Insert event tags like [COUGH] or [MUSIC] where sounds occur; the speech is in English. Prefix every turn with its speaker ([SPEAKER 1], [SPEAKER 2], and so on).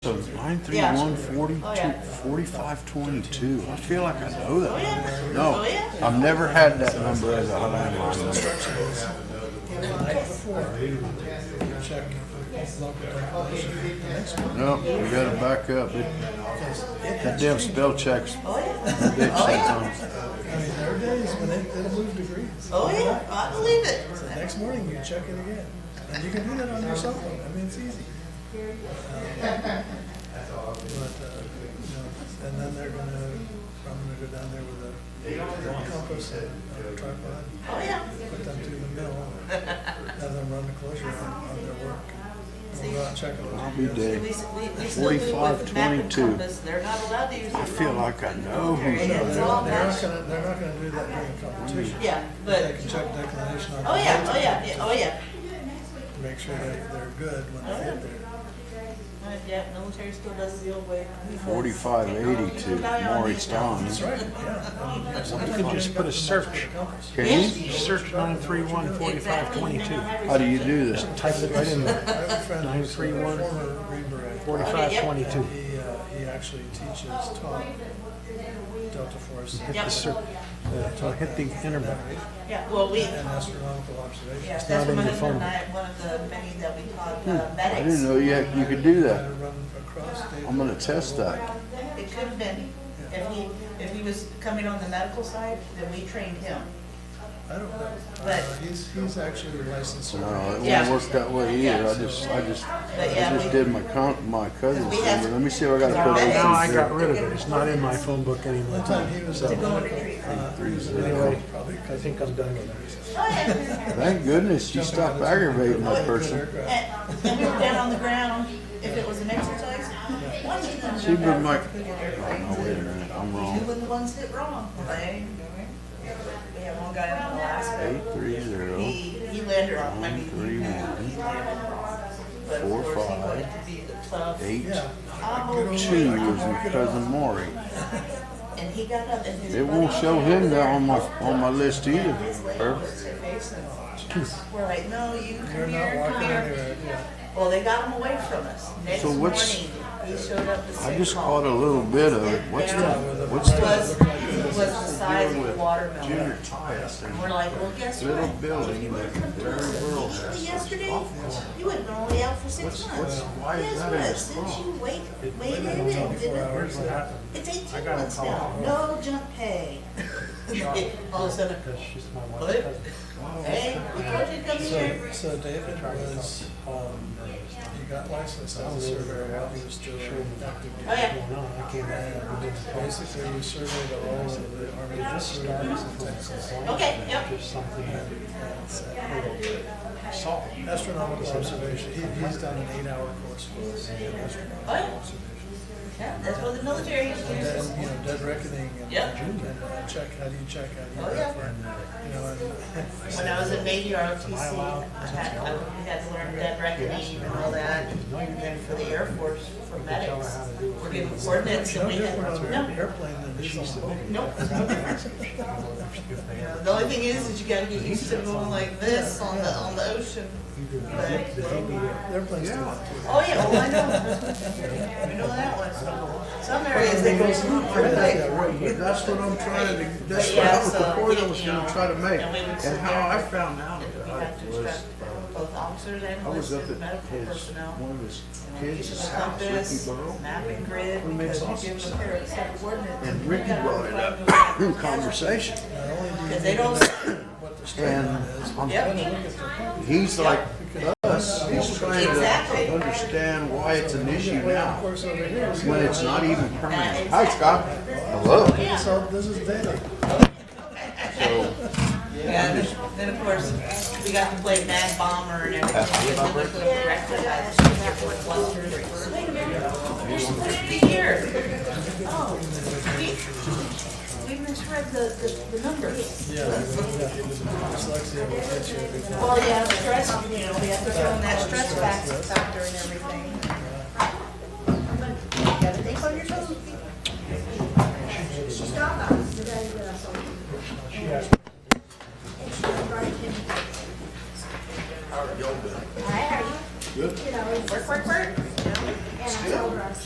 [SPEAKER 1] So nine three
[SPEAKER 2] Yeah.
[SPEAKER 1] one forty
[SPEAKER 2] Oh, yeah.
[SPEAKER 1] two forty five twenty two. I feel like I know that.
[SPEAKER 2] yeah.
[SPEAKER 1] number. No, Uh,
[SPEAKER 2] Oh, yeah.
[SPEAKER 1] I've never had that number as a landline. number. No, we gotta back up. It, that damn spell checks.
[SPEAKER 2] Oh
[SPEAKER 1] a
[SPEAKER 2] yeah.
[SPEAKER 1] bitch sometimes.
[SPEAKER 3] I mean, there are days when it, it'll move degrees.
[SPEAKER 2] Oh yeah. I believe it.
[SPEAKER 3] The next morning, you check it again. And you can do that on your cell phone. I mean, it's easy. Um, But, uh, you know, and then they're gonna, I'm gonna go down there with a compass and a tripod,
[SPEAKER 2] Oh yeah.
[SPEAKER 3] put them through the mill, and have them run the closure on, on their work. We'll go out and check it.
[SPEAKER 1] I'll be
[SPEAKER 2] We,
[SPEAKER 1] dead.
[SPEAKER 2] we still do it with map and
[SPEAKER 1] 45-22.
[SPEAKER 2] compass. They're not allowed to use their
[SPEAKER 1] I feel
[SPEAKER 2] phone.
[SPEAKER 1] like I know
[SPEAKER 3] No,
[SPEAKER 1] who's
[SPEAKER 3] they're,
[SPEAKER 2] It's
[SPEAKER 3] they're
[SPEAKER 2] all
[SPEAKER 3] not
[SPEAKER 2] matched.
[SPEAKER 3] gonna, they're not gonna do that during the competition.
[SPEAKER 2] Yeah,
[SPEAKER 3] They
[SPEAKER 2] but
[SPEAKER 3] can check declination on.
[SPEAKER 2] oh yeah, oh yeah, yeah, oh yeah.
[SPEAKER 3] Make sure they're, they're good when they get there.
[SPEAKER 2] Uh, yeah, military still does the old way.
[SPEAKER 1] forty five eighty two. Maury Thomas.
[SPEAKER 3] That's right, yeah.
[SPEAKER 4] You could just put a search,
[SPEAKER 1] Can
[SPEAKER 2] Yeah.
[SPEAKER 1] you?
[SPEAKER 4] You search nine three one forty-five twenty-two.
[SPEAKER 1] How do you do this?
[SPEAKER 4] Type it right in
[SPEAKER 3] I
[SPEAKER 4] there,
[SPEAKER 3] have a friend who's a
[SPEAKER 4] 931.
[SPEAKER 3] former Green Beret.
[SPEAKER 4] forty-five twenty-two.
[SPEAKER 3] And he, uh, he actually teaches taught Delta Force
[SPEAKER 4] Hit the search, uh, hit the internet.
[SPEAKER 2] Yeah, well we.
[SPEAKER 3] and astronomical
[SPEAKER 2] Yeah,
[SPEAKER 3] observations.
[SPEAKER 2] that's what
[SPEAKER 4] in
[SPEAKER 2] my
[SPEAKER 4] your
[SPEAKER 2] husband and
[SPEAKER 4] phone.
[SPEAKER 2] I, one of the many that we taught uh,
[SPEAKER 1] Hmm. I didn't
[SPEAKER 2] medics.
[SPEAKER 1] know you you could do
[SPEAKER 3] Try to
[SPEAKER 1] that.
[SPEAKER 3] run across data.
[SPEAKER 1] I'm gonna test that.
[SPEAKER 2] It could have been, if he, if he was coming on the medical side, then we trained him.
[SPEAKER 3] I don't know.
[SPEAKER 2] But-
[SPEAKER 3] Uh, He's, he's actually a licensed
[SPEAKER 1] No, it
[SPEAKER 3] surveyor.
[SPEAKER 2] Yeah.
[SPEAKER 1] won't work that way either. I
[SPEAKER 2] Yeah.
[SPEAKER 1] just, I just, I
[SPEAKER 2] yeah, we-
[SPEAKER 1] just did my con, my cousin's
[SPEAKER 2] We have-
[SPEAKER 1] number. Let me see if I gotta
[SPEAKER 4] Now,
[SPEAKER 1] put it
[SPEAKER 4] now I
[SPEAKER 1] in
[SPEAKER 4] got
[SPEAKER 1] here.
[SPEAKER 4] rid of it, it's not in my phone book
[SPEAKER 3] One
[SPEAKER 4] anymore.
[SPEAKER 3] time he was,
[SPEAKER 2] To go and
[SPEAKER 3] uh,
[SPEAKER 2] retrieve.
[SPEAKER 1] Three zero.
[SPEAKER 4] Anyway, I think I'm done with
[SPEAKER 2] Oh yeah.
[SPEAKER 1] Thank goodness you stopped aggravating that person.
[SPEAKER 3] aircraft.
[SPEAKER 2] And and we were down on the ground, if it was an exercise, watching them.
[SPEAKER 1] She been like, Oh,
[SPEAKER 2] Who did
[SPEAKER 1] no, wait a
[SPEAKER 2] everything?
[SPEAKER 1] minute, I'm
[SPEAKER 2] Who
[SPEAKER 1] wrong.
[SPEAKER 2] were the ones that wrong? They, we have one guy in Alaska,
[SPEAKER 1] Eight three zero
[SPEAKER 2] he, he landed on, I mean,
[SPEAKER 1] three
[SPEAKER 2] he landed.
[SPEAKER 1] one
[SPEAKER 2] But of
[SPEAKER 1] four
[SPEAKER 2] course, he
[SPEAKER 1] five
[SPEAKER 2] wanted to be the tough.
[SPEAKER 1] eight
[SPEAKER 3] Yeah.
[SPEAKER 2] Oh,
[SPEAKER 1] two was my cousin Maury.
[SPEAKER 2] And he got up and his.
[SPEAKER 1] It won't show him that on my on my list either.
[SPEAKER 2] His lady was her face and we're like, no, you
[SPEAKER 3] You're
[SPEAKER 2] come here,
[SPEAKER 3] not
[SPEAKER 2] come
[SPEAKER 3] walking
[SPEAKER 2] here.
[SPEAKER 3] anywhere, yeah.
[SPEAKER 2] Well, they got him away from us. Next
[SPEAKER 1] So
[SPEAKER 2] morning,
[SPEAKER 1] what's-
[SPEAKER 2] he showed up
[SPEAKER 1] I
[SPEAKER 2] to say,
[SPEAKER 1] just
[SPEAKER 2] "Mom,
[SPEAKER 1] caught a little bit of it. What's the, what's the
[SPEAKER 2] was, was the size of a watermelon.
[SPEAKER 1] junior Tias?
[SPEAKER 2] We're like, well, guess
[SPEAKER 1] Little
[SPEAKER 2] what?
[SPEAKER 1] building that the very world has.
[SPEAKER 2] Yesterday, you would've been only out for six months.
[SPEAKER 1] why is that in
[SPEAKER 2] Guess what?
[SPEAKER 1] the
[SPEAKER 2] Since you wait, waited
[SPEAKER 3] Within
[SPEAKER 2] and
[SPEAKER 3] 24
[SPEAKER 2] didn't,
[SPEAKER 3] hours, uh,
[SPEAKER 2] it's eighteen months now, no jump pay. [LAUGHS] All of a sudden,
[SPEAKER 4] That's just my
[SPEAKER 2] what?
[SPEAKER 4] wife's cousin.
[SPEAKER 2] Hey, we told you to come here.
[SPEAKER 3] So, so David was, um, he got licensed as a surveyor while he was still active.
[SPEAKER 2] Oh, yeah.
[SPEAKER 4] No, I can't.
[SPEAKER 3] Basically, we surveyed all of the Army reserves in Texas.
[SPEAKER 2] Okay, yep.
[SPEAKER 4] Just something
[SPEAKER 3] uh, Astronomical observation, he, he's done an eight-hour course for us. in astronomical
[SPEAKER 2] Oh, yeah.
[SPEAKER 3] observation.
[SPEAKER 2] Yeah, that's what the military
[SPEAKER 3] And
[SPEAKER 2] uses.
[SPEAKER 3] then, you know, dead reckoning and,
[SPEAKER 2] Yep.
[SPEAKER 3] and uh, check, how do you check, how
[SPEAKER 2] Oh,
[SPEAKER 3] do you
[SPEAKER 2] yeah.
[SPEAKER 3] refer? You know, and [LAUGHS]
[SPEAKER 2] When I was in Navy ROTC, I had, I had to learn dead reckoning and all that. And then for the Air Force, for medics, we're given coordinates and
[SPEAKER 3] no
[SPEAKER 2] we had,
[SPEAKER 3] different on an
[SPEAKER 2] no,
[SPEAKER 3] airplane than it is on a boat.
[SPEAKER 4] [LAUGHS]
[SPEAKER 2] nope. The only thing is, is you gotta get used to going like this on the, on the ocean.
[SPEAKER 3] Airplanes do that too.
[SPEAKER 2] Oh, yeah, oh, I know. We know that one. Some areas, they go pretty quick.
[SPEAKER 1] That's what I'm trying to, that's what
[SPEAKER 2] But yeah,
[SPEAKER 1] I was, the
[SPEAKER 2] so,
[SPEAKER 1] point I
[SPEAKER 2] you
[SPEAKER 1] was
[SPEAKER 2] know,
[SPEAKER 1] gonna try to make,
[SPEAKER 2] and we would sit
[SPEAKER 1] and how
[SPEAKER 2] there.
[SPEAKER 1] I found out
[SPEAKER 2] We
[SPEAKER 1] about
[SPEAKER 2] had to
[SPEAKER 1] it was,
[SPEAKER 2] instruct both officers and
[SPEAKER 1] I was up
[SPEAKER 2] enlisted
[SPEAKER 1] at
[SPEAKER 2] medical
[SPEAKER 1] his,
[SPEAKER 2] personnel.
[SPEAKER 1] one of his
[SPEAKER 2] Use
[SPEAKER 1] kids'
[SPEAKER 2] the
[SPEAKER 1] house, Ricky
[SPEAKER 2] compass,
[SPEAKER 1] Burrow.
[SPEAKER 2] map and grid,
[SPEAKER 1] Who makes
[SPEAKER 2] because
[SPEAKER 1] awesome
[SPEAKER 2] you give them a pair of set of coordinates.
[SPEAKER 1] And Ricky brought it up in conversation,
[SPEAKER 3] Not only do you
[SPEAKER 2] Because they don't,
[SPEAKER 1] [COUGHS]
[SPEAKER 3] what the strand
[SPEAKER 1] and
[SPEAKER 3] on is.
[SPEAKER 1] I'm
[SPEAKER 2] yep,
[SPEAKER 1] He's like us, he's trying
[SPEAKER 2] Exactly.
[SPEAKER 1] to understand why it's an issue
[SPEAKER 3] Of
[SPEAKER 1] now,
[SPEAKER 3] course, over here, we
[SPEAKER 1] when
[SPEAKER 3] got-
[SPEAKER 1] it's not even permanent. Hi, Scott. Hello.
[SPEAKER 3] this, all- this is data.
[SPEAKER 1] So,
[SPEAKER 2] yeah, then- then of course, we got to play Mad Bomber and everything. But then we put up rectifiers, we got to put clusters. Wait a minute, there's supposed to be here. Oh, we, we misread the, the, the numbers.
[SPEAKER 3] Yeah, yeah, dyslexia will get you.
[SPEAKER 2] Well, yeah, stress, you know, we have to throw in that stress fac- factor and everything.